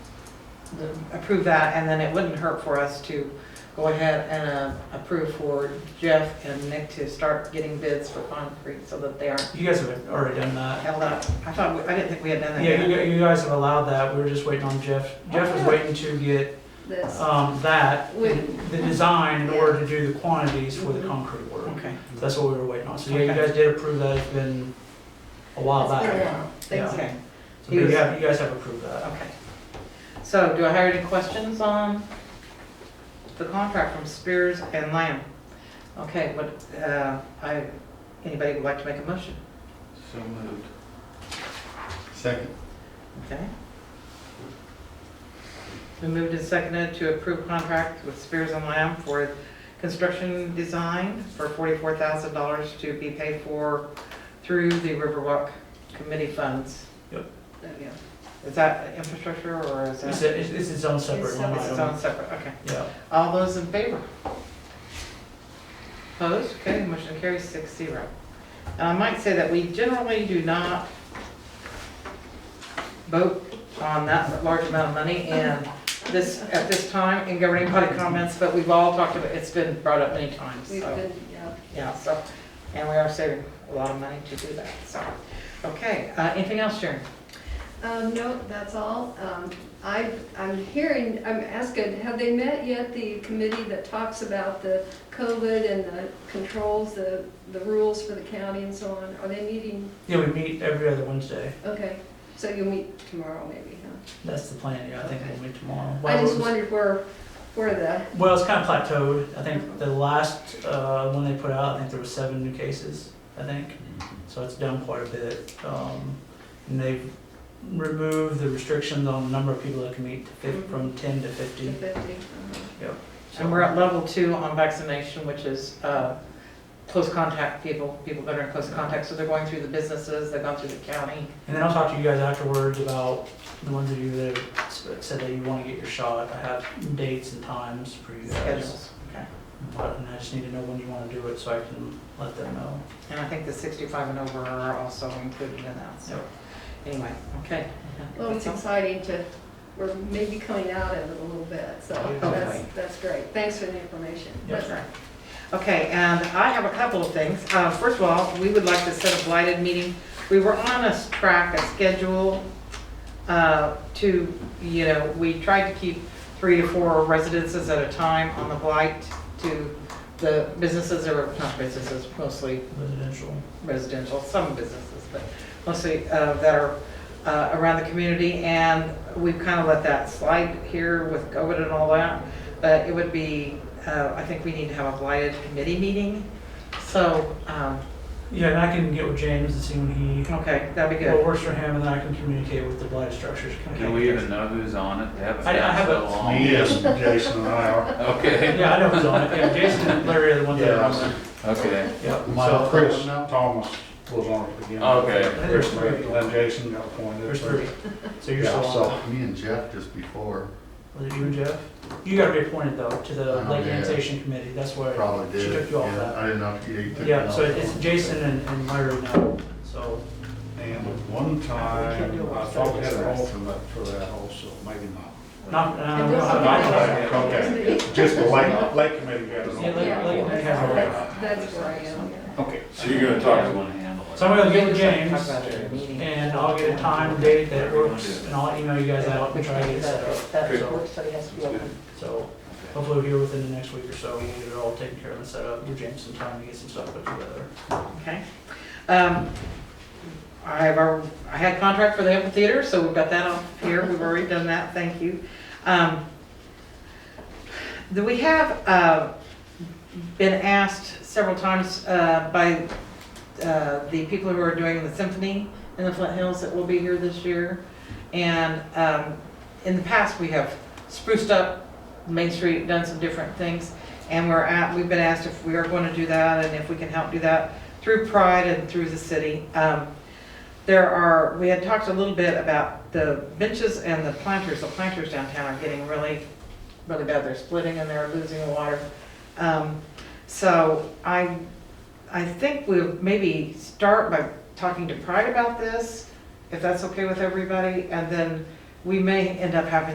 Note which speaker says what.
Speaker 1: approve that, and then it wouldn't hurt for us to go ahead and uh, approve for Jeff and Nick to start getting bids for concrete so that they aren't
Speaker 2: You guys have already done that.
Speaker 1: held up. I thought, we- I didn't think we had done that
Speaker 2: Yeah,
Speaker 1: yet.
Speaker 2: you, gu- you guys have allowed that, we were just waiting on Jeff. Jeff was waiting to get,
Speaker 3: This,
Speaker 2: um, that,
Speaker 3: We-
Speaker 2: the design in order to do the quantities for the concrete work.
Speaker 1: Okay,
Speaker 2: That's what we were waiting on, so yeah, you guys did approve that, it's been a while
Speaker 3: It's been a
Speaker 2: Oh, back.
Speaker 3: while. Things-
Speaker 1: okay,
Speaker 2: So you have, you guys have approved that.
Speaker 1: okay. So do I have any questions on the contract from Spears and Lamb? Okay, what, uh, I, anybody would like to make a motion?
Speaker 4: So moved. Second.
Speaker 1: Okay. We moved and seconded to approve contract with Spears and Lamb for construction design for forty-four thousand dollars to be paid for through the Riverwalk Committee funds.
Speaker 3: there we go.
Speaker 1: Is that infrastructure or is
Speaker 2: It's,
Speaker 1: that?
Speaker 2: a- it's, it's its own separate
Speaker 3: It's
Speaker 2: line
Speaker 1: It's its own
Speaker 2: item.
Speaker 1: separate, okay.
Speaker 2: Yeah.
Speaker 1: All those in favor? Opposed? Okay, motion carries six zero. And I might say that we generally do not vote on that large amount of money and this, at this time, in governing body comments, but we've all talked about, it's been brought up many times,
Speaker 3: We've
Speaker 1: so,
Speaker 3: been, yeah.
Speaker 1: yeah, so. And we are saving a lot of money to do that, so. Okay, uh, anything else, Sharon?
Speaker 3: Um, no, that's all. Um, I, I'm hearing, I'm asking, have they met yet, the committee that talks about the COVID and the controls, the, the rules for the county and so on? Are they meeting?
Speaker 2: Yeah, we meet every other Wednesday,
Speaker 3: Okay, so you'll meet tomorrow maybe, huh?
Speaker 2: that's the plan, yeah, I think we'll meet tomorrow.
Speaker 3: I
Speaker 2: Well,
Speaker 3: just
Speaker 2: it's-
Speaker 3: wondered where, where the,
Speaker 2: Well, it's kind of plateaued, I think the last, uh, one they put out, I think there were seven new cases, I think.
Speaker 1: Mm-hmm.
Speaker 2: So it's down quite a bit, um, and they've removed the restrictions on the number of people that can meet to fif- from ten to
Speaker 3: the
Speaker 2: fifty.
Speaker 3: fifty. uh-huh.
Speaker 2: So-
Speaker 1: Mm-hmm. And we're at level two on vaccination, which is uh, close contact people, people that are in close contact. So they're going through the businesses, they've gone through the county.
Speaker 2: And then I'll talk to you guys afterwards about the ones of you that have s- said that you want to get your shot. I have dates and times for you guys.
Speaker 1: schedules. Okay.
Speaker 2: But- And I just need to know when you want to do it so I can let them know.
Speaker 1: And I think the 65 and over are also included in that, so, anyway, okay.
Speaker 3: Well, it's exciting to, we're maybe coming out of it a little bit, so
Speaker 2: Yeah.
Speaker 3: that's,
Speaker 1: Hopefully.
Speaker 3: that's great. Thanks for the information.
Speaker 1: That's right. Okay, and I have a couple of things. Uh, First of all, we would like to set a blighted meeting. We were on a s- track, a schedule uh, to, you know, we tried to keep three to four residences at a time on the blight to the businesses, or not businesses, mostly
Speaker 2: Residential.
Speaker 1: residential, some businesses, but mostly uh, that are uh, around the community. And we've kind of let that slide here with COVID and all that. But it would be, uh, I think we need to have a blighted committee meeting. So, um,
Speaker 2: Yeah, and I can get with James and see when he,
Speaker 1: okay, that'd be
Speaker 2: what
Speaker 1: good.
Speaker 2: works for him, and then I can communicate with the blighted structures.
Speaker 5: Do we even know who's on it? They haven't
Speaker 2: I- I
Speaker 5: been so
Speaker 2: haven't-
Speaker 5: long.
Speaker 4: Yes, Jason and I are.
Speaker 5: Okay,
Speaker 2: Yeah, I know who's on it. Yeah, Jason and Larry are the ones that are on
Speaker 4: Yeah.
Speaker 2: it.
Speaker 5: okay.
Speaker 2: Yep.
Speaker 4: So Chris Thomas was on it again.
Speaker 5: Okay.
Speaker 4: Chris, Rick, and then Jason got appointed.
Speaker 2: There's three. So you're
Speaker 4: Yeah,
Speaker 2: still on.
Speaker 4: so,
Speaker 6: Me and Jeff just before
Speaker 2: it. Was it you and Jeff? You got to be appointed though to the
Speaker 6: Oh,
Speaker 2: Lake
Speaker 6: yeah.
Speaker 2: Annexation Committee. That's where
Speaker 6: probably
Speaker 2: she
Speaker 6: did.
Speaker 2: took
Speaker 6: it.
Speaker 2: you off
Speaker 6: Yeah,
Speaker 2: that.
Speaker 6: I didn't know if you you took.
Speaker 2: Yeah,
Speaker 6: it
Speaker 2: so
Speaker 6: off.
Speaker 2: it's Jason and, and Larry now, so,
Speaker 4: and at one time, I thought we had an alternate for that also, maybe not.
Speaker 2: not, uh,
Speaker 3: And
Speaker 2: we
Speaker 3: this
Speaker 2: don't
Speaker 3: is-
Speaker 2: have an
Speaker 4: Okay, okay. Just the lake, lake committee got an
Speaker 2: Yeah,
Speaker 4: alternate.
Speaker 2: lake- lake committee has a rep.
Speaker 3: That's, that's where I am, yeah.
Speaker 4: Okay.
Speaker 5: So you're gonna talk to one handle. it.
Speaker 2: So I'm gonna get with
Speaker 1: Talk
Speaker 2: James,
Speaker 1: about it at a meeting.
Speaker 2: and I'll get a time, date that works, and I'll email you guys out and try to get it set up.
Speaker 1: That work study has to be open.
Speaker 2: So, hopefully here within the next week or so, we'll get it all taken care of and set up, give James some time to get some stuff put together.
Speaker 1: Okay. Um, I have our, I had contract for the amphitheater, so we've got that on here. We've already done that. Thank you. Um, Do we have, uh, been asked several times, uh, by, uh, the people who are doing the symphony in the Flint Hills that will be here this year? And, um, in the past, we have spruced up Main Street, done some different things. And we're at, we've been asked if we are going to do that and if we can help do that through Pride and through the city. Um, There are, we had talked a little bit about the benches and the planters. The planters downtown are getting really, really bad. They're splitting and they're losing water. Um, So I, I think we'll maybe start by talking to Pride about this, if that's okay with everybody. And then we may end up having